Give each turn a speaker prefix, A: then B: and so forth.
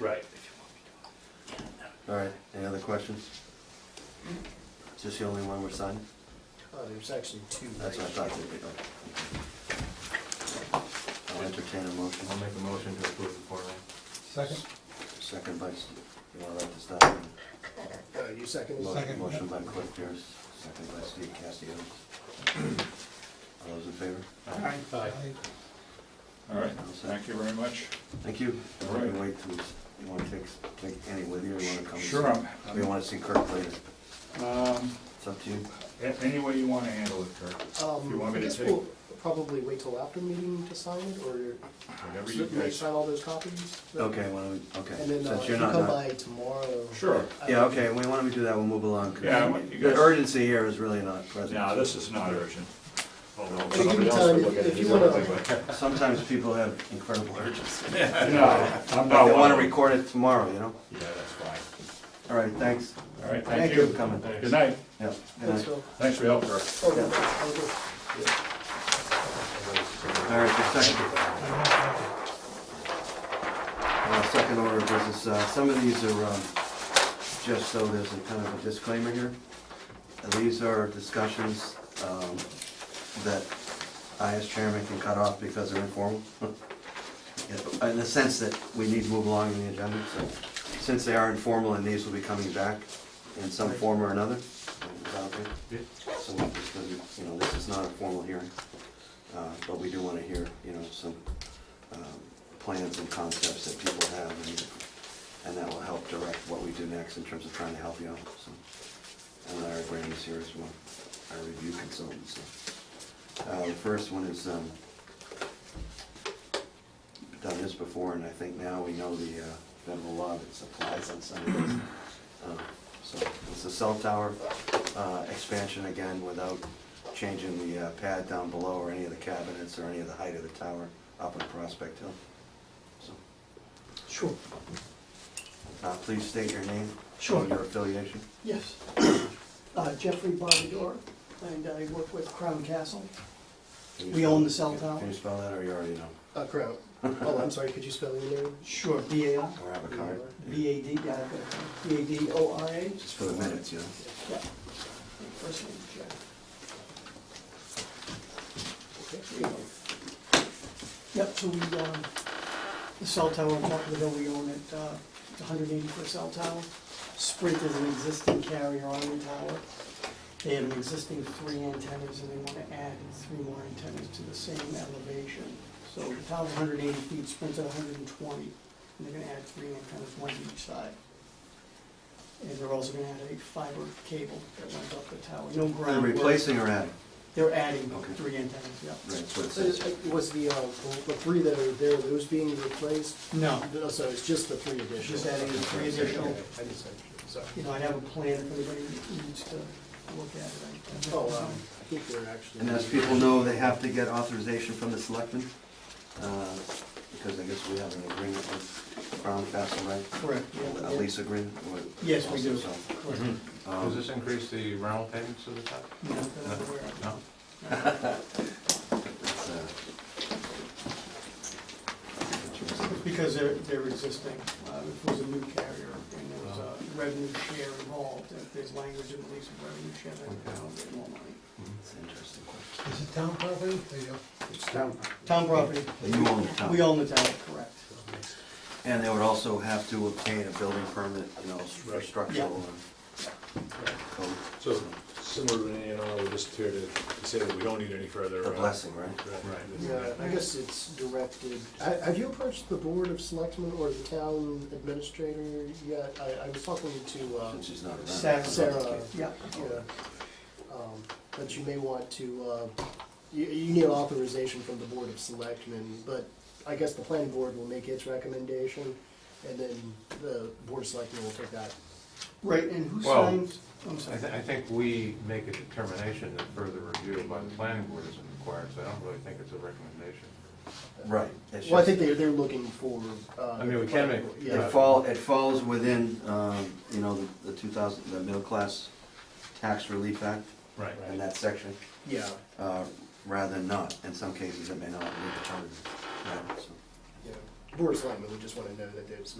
A: Right.
B: All right, any other questions? Is this the only one we're signing?
C: Oh, there's actually two.
B: That's what I
C: right
B: thought.
C: here.
B: there'd be, okay. I'll entertain a motion.
D: I'll make a motion to approve the Form
E: Second?
B: Second by, Steve. you wanna write this down?
C: Uh, you second?
B: Mo-
E: Second.
B: Motion by Cliff Pierce, second by Steve Cassius. All those in favor?
F: Aye.
A: Aye.
F: All right, thank you very much.
B: Thank you.
F: All right.
B: You wait till, you wanna take, take any with you, or you wanna come?
F: Sure, I'm-
B: Or you wanna see Kirk later?
F: Um,
B: It's up to you.
F: a- Any way you want to handle it, Kirk,
C: Um,
F: If you want me
C: I
F: to
C: guess
F: take-
C: we'll Probably wait till after the meeting to sign it, or
F: whatever
C: so
F: you
C: can we
F: guys.
C: sign all those copies?
B: Okay, why don't we, okay.
C: And then uh,
B: Since
C: if
B: you're
C: you
B: not
C: come
B: not-
C: by tomorrow. Uh,
F: Sure.
C: I-
B: Yeah, okay, we want to do that, we'll move along. 'cause
F: Um, Yeah, I want you
B: The
F: guys-
B: urgency here is really not present.
F: No, this is not urgent. Although
C: But give
F: somebody
C: me
F: else
C: time,
F: would look at
C: if-
F: it
C: if you
F: differently,
C: wanna-
F: but-
B: Sometimes people have incredible urgency.
F: No, uh, I'm
B: They
F: not one
B: want
F: of
B: to
F: them.
B: record it tomorrow, you know?
F: Yeah, that's fine.
B: All right, thanks.
F: All right,
B: Thank
F: thank
B: you
F: you.
B: for coming.
F: Good night.
B: Yeah. good
C: Thanks,
B: night.
C: Phil.
F: Thanks for your help, Kirk.
C: Oh, yeah, I'll go.
B: All right, the second. Uh, Second order of business, uh, some of these are, um, just so there's a kind of a disclaimer here. And These are discussions um, that I as chairman can cut off because they're informal. Yeah, In the sense that we need to move along in the agenda, so since they are informal and these will be coming back in some form or another. without me. So we'll just, you know, this is not a formal hearing. Uh, But we do want to hear, you know, some um, plans and concepts that people have, and- and that will help direct what we do next in terms of trying to help you out. so. And Larry Graham is here as well, our review consultant, so. Uh, The first one is, um, done this before, and I think now we know the uh, federal law that applies on some of these. Um, So it's the cell tower uh, expansion again without changing the uh, pad down below or any of the cabinets or any of the height of the tower up on Prospect Hill. So,
C: Sure,
B: uh, Please state your name.
C: Sure.
B: and Your affiliation.
G: Yes. Uh, Jeffrey Barbador, and I work with Crown Castle.
B: Can you
G: We
B: spell-
G: own the cell tower.
B: Can you spell that or you already know?
C: uh, Crown. Oh, I'm sorry, could you spell your name?
G: Sure. B A I,
B: Or have a card?
G: B A D, yeah, B A D O R A.
B: Just for the minutes, you know?
G: Yeah. First name, Jeff.
C: Okay, here you go.
G: Yep, so we, um, the cell tower on top of the hill, we own it, uh, it's a hundred eighty foot cell tower. Sprint is an existing carrier on the tower. They have an existing three antennas and they wanna add three more antennas to the same elevation. So the tower's hundred eighty feet, Sprint's at hundred and twenty, and they're gonna add three antennas, one to each side. And they're also gonna add a fiber cable that runs up the tower, no
B: They're
G: ground.
B: replacing or adding?
G: They're adding
B: Okay.
G: three antennas, yeah.
B: Right, that's what it
C: So, uh,
B: says.
C: Was the, uh, the three that are there, those being replaced?
G: No,
C: No, so it's just the three additional?
G: Just adding the three additional.
C: Okay, I just, sorry.
G: you know, I'd have a plan if anybody needs to look at it. I-
C: Oh, um, I think they're actually.
B: And as people know, they have to get authorization from the selectmen, uh, because I guess we have an agreement with Crown Castle, right?
G: Correct, yeah.
B: A lease agreement? or-
G: Yes, we do.
B: So,
G: Correct.
D: Mm-hmm.
B: um,
D: Does this increase the rental payments to the town?
G: No, that I'm aware of.
D: No?
B: it's, uh,
G: It's Because they're, they're existing, uh, if it was a new carrier and there was a revenue share involved, if there's language in the lease of revenue share, then they don't get more money.
B: It's an interesting question.
E: Is it town property? There you go.
C: It's down.
G: Town property,
B: But you own the town.
G: we own the town, correct.
B: And they would also have to obtain a building permit, you know, for
A: Right.
B: structural and code.
A: So similar to any and all, we're just here to say that we don't need any further.
B: A
A: uh,
B: blessing, right?
A: Right.
C: Yeah, I guess it's directed, I- have you approached the Board of Selectmen or the Town Administrator yet? I, I was talking to, um,
B: Since she's not around.
G: Sarah.
C: Sarah,
G: Yeah,
C: yeah, um, but you may want to, uh, you, you need authorization from the Board of Selectmen, but I guess the planning board will make its recommendation, and then the Board of Selectmen will take that.
G: right, and who
D: Well,
G: signs, I'm
D: I,
G: sorry,
D: thi- I think we make a determination that further review by the planning board isn't required, so I don't really think it's a recommendation.
B: Right. it's
C: Well, I
B: just-
C: think they're, they're looking for, uh.
D: I mean, we can make-
C: Yeah.
B: It fall, it falls within, um, you know, the two thousand, the middle class tax relief act
A: Right.
B: and that section,
C: Yeah,
B: uh, rather than not. In some cases, it may not be determined. Right, so.
C: yeah. Board of Selectmen would just wanna know that there's